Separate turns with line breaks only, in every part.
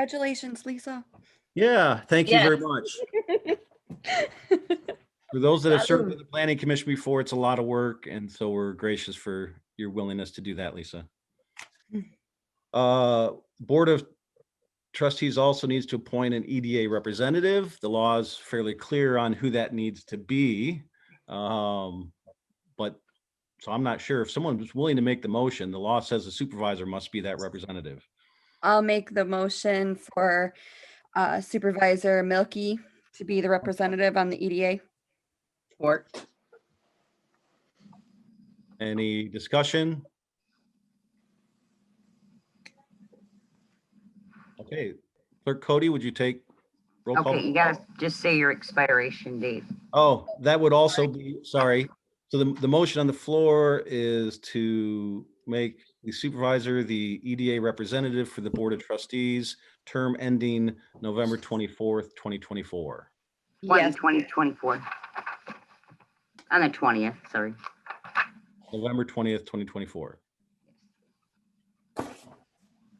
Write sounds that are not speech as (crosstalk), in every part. Congratulations, Lisa.
Yeah, thank you very
Yes.
much. For those that have served on the planning commission before, it's a lot of work, and so we're gracious for your willingness to do that, Lisa. Uh, Board of trustees also needs to appoint an EDA representative. The law is fairly clear on who that needs to be. Um, But, so I'm not sure if someone was willing to make the motion, the law says the supervisor must be that representative.
I'll make the motion for uh, Supervisor Milky to be the representative on the E EDA.
Or
Any discussion? Okay, Clerk Cody, would you take? roll call?
Okay, you gotta just say your expiration date.
Oh, that would also be, sorry. So the, the motion on the floor is to make the supervisor the EDA representative for the Board of Trustees, term ending November 24th, 2024.
One,
Yes,
twenty, twenty-four. On the twentieth, sorry.
November 20th, 2024.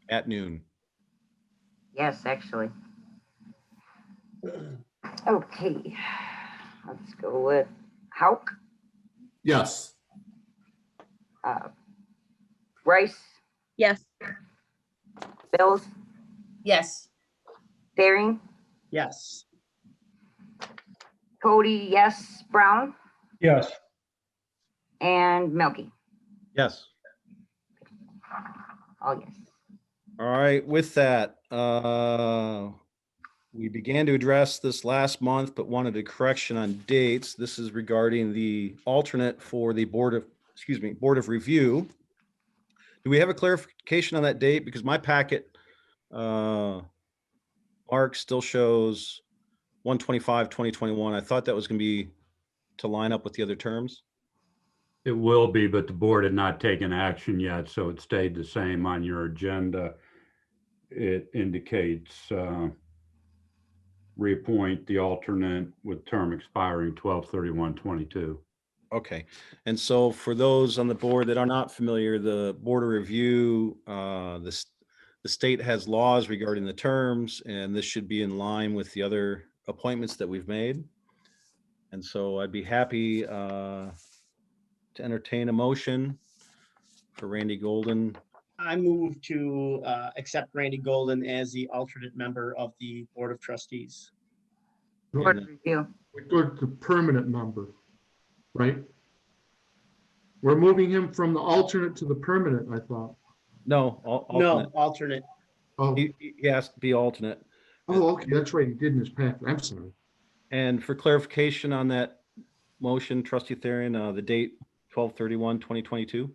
At noon. (clears throat)
Yes, actually. Okay, let's go with Hauk,
Yes.
uh, Rice,
yes.
Bills,
yes.
Daring,
Yes.
Cody, yes, Brown,
yes,
and Milky.
Yes.
Oh, yes.
All right, with that, uh, we began to address this last month, but wanted a correction on dates. This is regarding the alternate for the Board of, excuse me, Board of Review. Do we have a clarification on that date? Because my packet, uh, arc still shows 125, 2021. I thought that was going to be to line up with the other terms.
it will be, but the board had not taken action yet, so it stayed the same on your agenda. It indicates uh, reappoint the alternate with term expiring 12/31/22.
Okay, and so for those on the board that are not familiar, the Board of Review, uh, this, the state has laws regarding the terms, and this should be in line with the other appointments that we've made. And so I'd be happy uh, to entertain a motion for Randy Golden.
I move to uh, accept Randy Golden as the alternate member of the Board of Trustees.
Board of Review.
We go to permanent member, right? We're moving him from the alternate to the permanent, I thought.
No, al-
No,
alternate.
alternate.
Oh,
He he- he has to be alternate.
oh, okay, that's right, he did in his packet, I'm sorry.
And for clarification on that motion, trustee Theron, uh, the date 2022.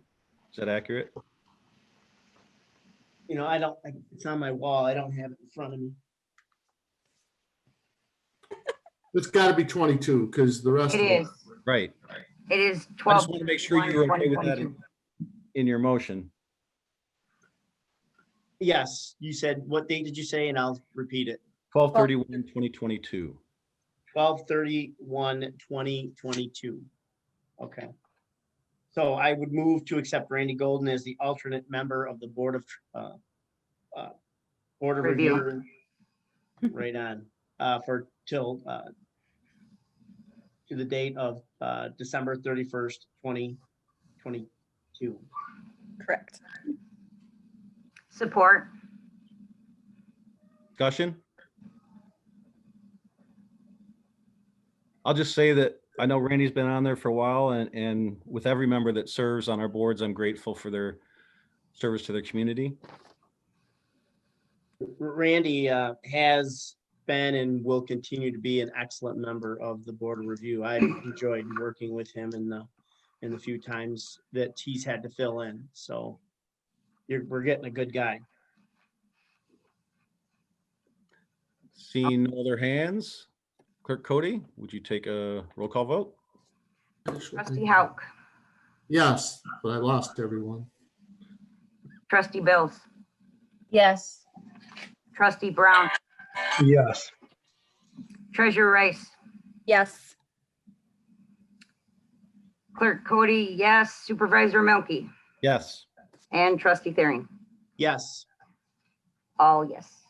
is that accurate?
You know, I don't, I- it's on my wall. I don't have it in front of me.
It's gotta be twenty-two, because the rest.
It
of
is,
Right.
it is
I
twelve.
just want to make sure you're okay with that in- in your motion.
Yes, you said, what date did you say? And I'll repeat it.
2022.
Twelve thirty-one, twenty twenty-two. Okay. So I would move to accept Randy Golden as the alternate member of the Board of, uh, uh, Board of
Review.
Review. Right on, uh, for till, uh, to the date of, uh, December thirty-first, twenty twenty-two.
Correct.
Support,
Discussion? I'll just say that I know Randy's been on there for a while and, and with every member that serves on our boards, I'm grateful for their service to their community.
Randy uh, has been and will continue to be an excellent member of the Board of Review. I enjoyed working with him in the, in the few times that he's had to fill in, so you're, we're getting a good guy.
Seeing no other hands, Clerk Cody, would you take a roll call vote?
trustee Hauk,
Yes, but I lost everyone.
trustee Bills,
Yes.
trustee Brown,
Yes.
treasurer Rice,
Yes.
clerk Cody, yes, supervisor Milky,
Yes.
and trustee Thering.
Yes,
All yes.